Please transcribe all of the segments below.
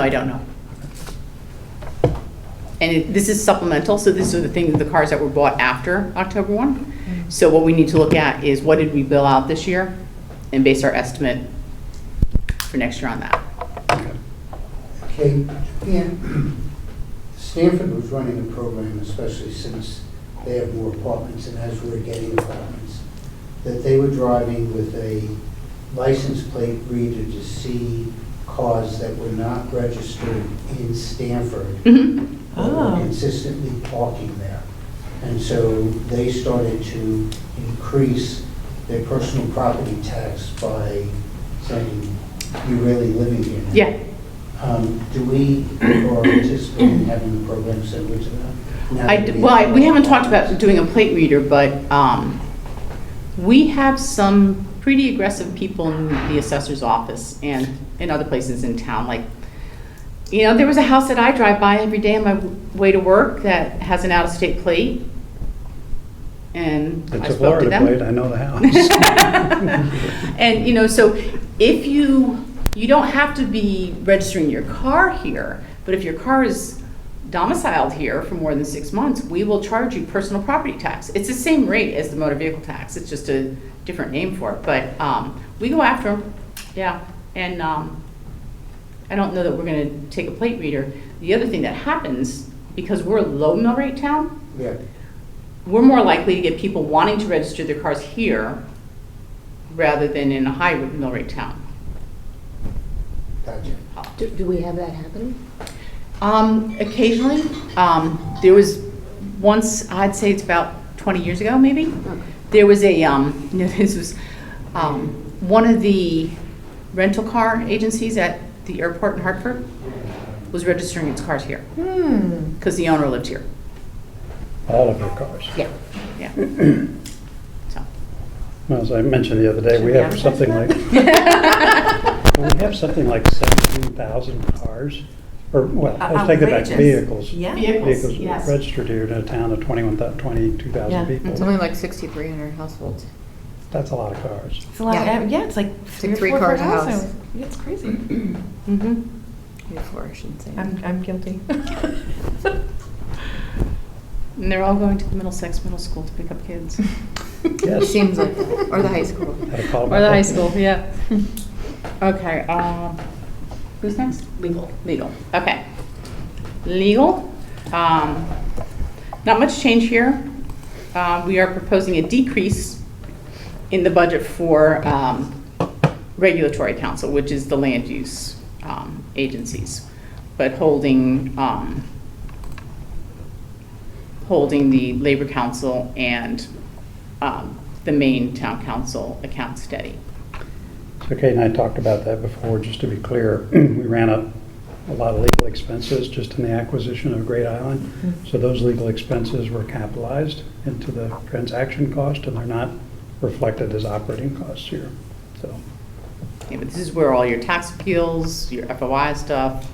I don't know. And it- this is supplemental, so this is the thing, the cars that were bought after October 1. So what we need to look at is what did we bill out this year and base our estimate for next year on that. Okay, and Stanford was running a program, especially since they have more apartments and as we're getting apartments, that they were driving with a license plate reader to see cars that were not registered in Stanford Mhm. that were Oh. consistently parking there. And so they started to increase their personal property tax by saying, you're really living here now." Yeah, Um, Do we, or anticipate having a program similar to that? Now I, that d- we well, I- have- we haven't talked about doing a plate reader, but um, we have some pretty aggressive people in the assessor's office and in other places in town, like, you know, there was a house that I drive by every day on my w- way to work that has an out-of-state plate, and I It's a spoke to Florida them. plate, I know the house. And, you know, so if you, you don't have to be registering your car here, but if your car is domiciled here for more than six months, we will charge you personal property tax. It's the same rate as the motor vehicle tax, it's just a different name for it, but, um, we go after them, yeah. And, um, I don't know that we're gonna take a plate reader. The other thing that happens, because we're a low mill rate town, Yeah, we're more likely to get people wanting to register their cars here rather than in a high mill rate town. gotcha. Do, do we have that happening? Um, occasionally, um, there was once, I'd say it's about twenty years ago, maybe, there was a, um, you know, this was, um, one of the rental car agencies at the airport in Hartford was registering its cars here, Hmm. because the owner lived here, All of your cars. Yeah. yeah. So. Well, As I mentioned the other day, we have something like, we have something like 17,000 cars, or, well, I take it back, Outrageous. vehicals. Yeah. Vehicles, Vehicles yes. registered here in a town of 21, thou- 22,000 It's only people. like 6,300 households. That's a lot of cars. It's a lot. Yeah. Yeah, yeah it's like three, three or four cars a per house. house. Yeah, it's crazy. Mm-hmm. Maybe four, I shouldn't say. I'm, I'm guilty. And they're all going to the Middlesex Middle School to pick up kids. Yes. Seems like, that. or the high school. Had a call Or the about high that. school, yeah. Okay, um, who's next? Legal. Legal, okay. Legal, um, not much change here. Uh, we are proposing a decrease in the budget for, um, regulatory council, which is the land use, um, agencies, but holding, um, holding the labor council and, um, the main town council account steady. So Kate and I talked about that before, just to be clear. We ran up a lot of legal expenses just in the acquisition of Great Island. Mm-hmm. So those legal expenses were capitalized into the transaction cost, and they're not reflected as operating costs here. So Yeah, but this is where all your tax appeals, your FOI stuff,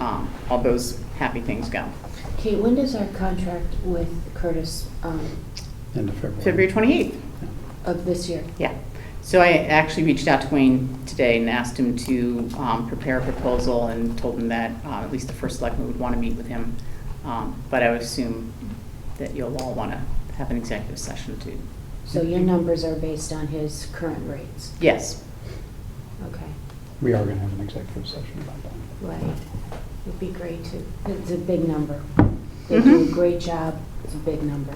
um, all those happy things go. Kate, when does our contract with Curtis um, end of February. February 28th, of this year? yeah. So I actually reached out to Wayne today and asked him to um, prepare a proposal and told him that uh, at least the first selectman would want to meet with him. Um, But I would assume that you'll all want to have an executive session too. So your numbers are based on his current rates? Yes, Okay, We are going to have an executive session about that. right. It'd be great to, Mm-hmm. it's a big number. They do a Mhm. great job, it's a big number.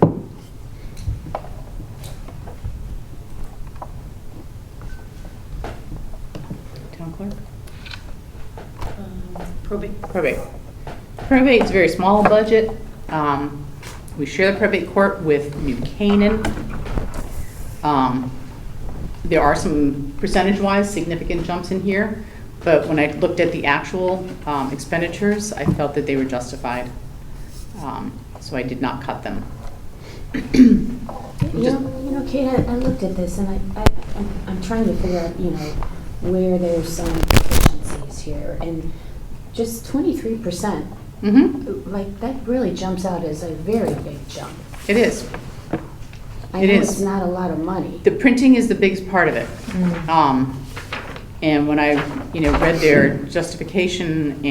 town clerk? Probate. Probate. Probate's a very small budget. Um, We share the probate court with New Canaan. Um, There are some percentage-wise significant jumps in here, but when I looked at the actual um, expenditures, I felt that they were justified. Um, So I did not cut them. You know, you know, Kate, I I looked at this and I, I, I'm- I'm trying to figure out, you know, where there's some deficiencies here. And just twenty-three percent Mhm, Like, that really jumps out as a very big jump. It is. I It know is. it's not a lot of money. The printing is the biggest part of it. Um, And when I, you know, read their justification